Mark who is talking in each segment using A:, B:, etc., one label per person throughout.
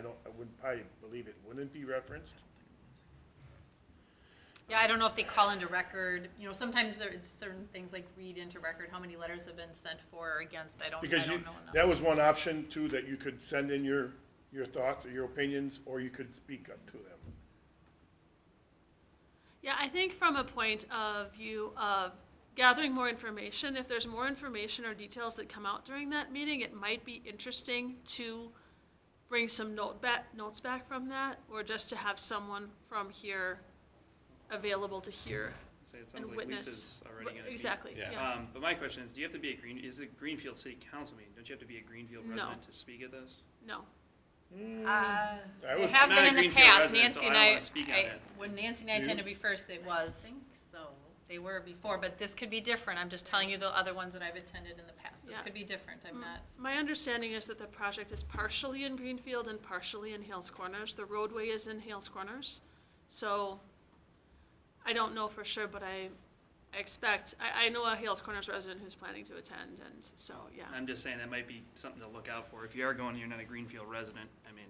A: don't, I wouldn't, I believe it wouldn't be referenced.
B: Oh, Yeah, I don't know if they call into record, you know, sometimes there are certain things like read into record, how many letters have been sent for or against, I don't, I
A: Because you,
B: don't know enough.
A: that was one option too, that you could send in your, your thoughts or your opinions, or you could speak up to them.
C: Yeah, I think from a point of view of gathering more information, if there's more information or details that come out during that meeting, it might be interesting to bring some note back, notes back from that, or just to have someone from here available to hear
D: Say, it
C: and
D: sounds like
C: witness.
D: Lisa's already gonna be.
C: Exactly,
E: Yeah.
C: yeah.
D: Um, but my question is, do you have to be a Green, is it Greenfield City Council meeting? Don't you have to be a Greenfield
C: No.
D: resident to speak at this?
C: No,
B: Uh,
A: I
B: They
A: Mm. would-
B: have
D: I'm
B: been
D: not a
B: in the
D: Greenfield
B: past,
D: resident,
B: Nancy
D: so I
B: and
D: don't
B: I,
D: wanna speak on
B: I,
D: it.
B: when Nancy and I tend
A: You?
B: to be first, it was. So. They were before, but this could be different, I'm just telling you the other ones that I've attended in the past, this
C: Yeah.
B: could be different, I'm
C: Mm.
B: not.
C: My understanding is that the project is partially in Greenfield and partially in Hales Corners. The roadway is in Hales Corners. So I don't know for sure, but I, I expect, I, I know a Hales Corners resident who's planning to attend and so, yeah.
D: I'm just saying that might be something to look out for. If you are going, you're not a Greenfield resident, I mean,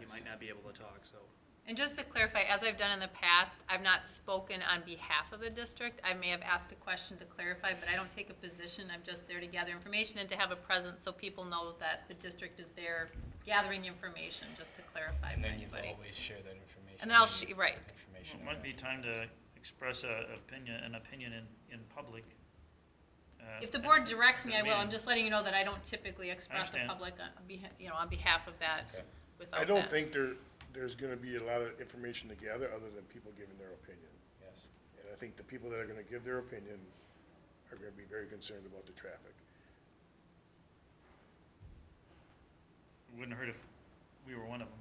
D: you might not be able to talk, so.
B: And just to clarify, as I've done in the past, I've not spoken on behalf of the district. I may have asked a question to clarify, but I don't take a position. I'm just there to gather information and to have a presence so people know that the district is there gathering information, just to clarify
F: And
B: for
F: then you've
B: anybody.
F: always share that information.
B: And then I'll,
F: and
B: sh- right,
F: Information.
G: It might be time to express a opinion, an opinion in, in public. uh,
B: If the board directs me, I will. I'm
G: Meeting.
B: just letting you know that I don't typically express the
G: understand.
B: public, on beha- you know, on behalf of that
F: Okay.
B: without
A: I don't
B: that.
A: think there, there's gonna be a lot of information to gather, other than people giving their opinion.
F: Yes.
A: And I think the people that are gonna give their opinion are gonna be very concerned about the traffic.
G: It Wouldn't hurt if we were one of them.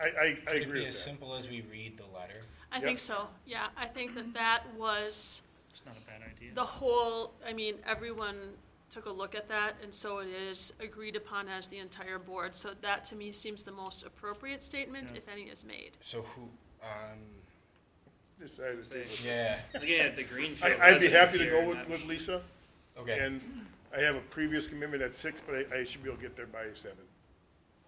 A: I, I, I
F: Could Mm-hmm. it
A: agree
F: be
A: with
F: as
A: that.
F: simple as we read the letter?
C: I
A: Yep.
C: think so, yeah. I think
D: Mm-hmm.
C: that that was
G: It's not a bad idea.
C: the whole, I mean, everyone took a look at that and so it is agreed upon as the entire board. So that to me seems the most appropriate statement,
G: Yeah.
C: if any, is made.
F: So who, um,
A: This side of the table.
F: yeah,
D: Looking at the Greenfield
A: I, I'd be
D: residents
A: happy to
D: here
A: go
D: and
A: with,
D: not-
A: with Lisa,
F: okay.
A: and I have a previous commitment at six, but I, I should be able to get there by seven.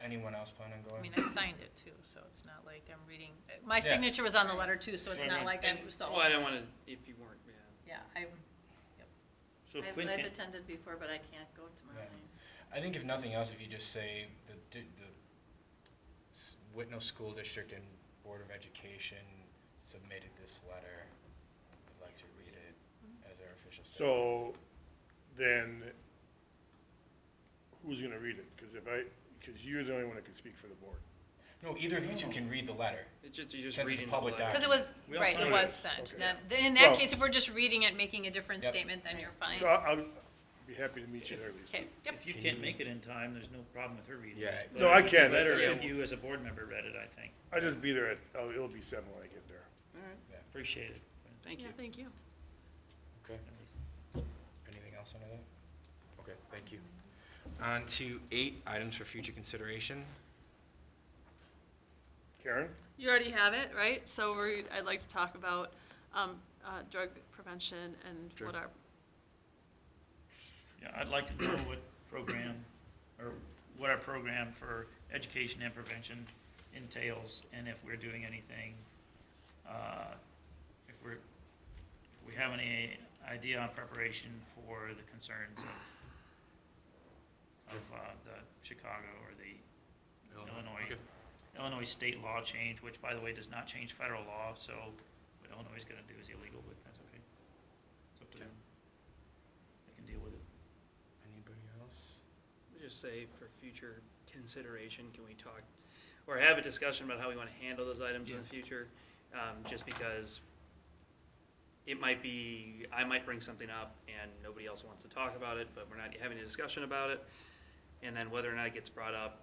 F: Anyone else plan on
B: I mean,
F: going?
B: I signed it too, so it's not like I'm reading, my
F: Yeah.
B: signature was on the letter too, so it's
G: Right,
B: not like
G: right.
B: I'm, so,
D: Well, I don't wanna, if you weren't, yeah.
B: yeah, I'm.
G: So if
H: I've-
G: Quinn
H: I've
G: can't,
H: attended before, but I can't go tomorrow
F: Yeah.
H: night.
F: I think if nothing else, if you just say the, di- the s- Whitnall School District and Board of Education submitted this letter, would like to read it
B: Mm-hmm.
F: as our official statement.
A: So, then, who's gonna read it? Cause if I, cause you're the only one that can speak for the board.
F: No, either of you two can read the letter.
D: It's just, you're just
F: Since it's a
D: reading the
F: public
D: letter.
B: Because it was,
G: We all
B: right, it
G: signed
B: was
G: it.
B: sent.
A: Okay.
B: Then- then In that
A: Well-
B: case, if we're just reading it, making a different
F: Yep.
B: statement, then you're fine.
A: So I'll, I'll be happy to meet you there, Lisa.
B: Okay, yep.
G: if you
F: Can
G: can't
F: you-
G: make it in time, there's no problem with her reading
F: Yeah.
G: it. but
A: No,
G: it
A: I
G: would be
A: can.
G: Better
D: Yeah.
G: if you as a board member read it, I think.
A: I'll just be there at, oh, it'll be seven when I get there.
D: All
H: Mm-hmm.
D: right,
G: Appreciate it.
D: thank
C: Yeah,
D: you.
C: thank you.
F: Okay. Anything else under that? Okay, thank you. On to eight, items for future consideration.
A: Karen?
C: You already have it, right? So we're, I'd like to talk about, um, uh, drug prevention and
F: Sure.
C: what our,
G: Yeah, I'd like to know what program, or what our program for education and prevention entails, and if we're doing anything, uh, if we're, if we have any idea on preparation for the concerns of, of uh, the Chicago or the Illinois, Illinois state law change, which by the way, does not change federal law, so what Illinois is gonna do is illegal, but that's okay. It's up to them. They can deal with it.
F: Anybody else?
D: Just say for future consideration, can we talk, or have a discussion about how we want to handle those items in the future? Um, just because it might be, I might bring something up and nobody else wants to talk about it, but we're not having a discussion about it. And then whether or not it gets brought up,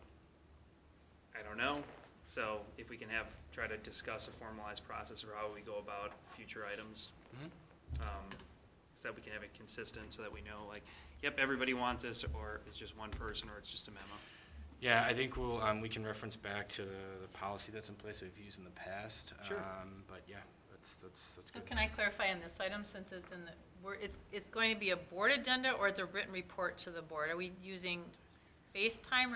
D: I don't know. So if we can have, try to discuss a formalized process or how we go about future items.
F: Hmm?
D: um, So that we can have it consistent, so that we know, like, yep, everybody wants this, or it's just one person, or it's just a memo.
F: Yeah, I think we'll, um, we can reference back to the, the policy that's in place that we've used in the past.
D: Sure.
F: Um, but yeah, that's, that's, that's
B: So
F: good.
B: can I clarify on this item, since it's in the, we're, it's, it's going to be a board agenda or it's a written report to the board? Are we using FaceTime or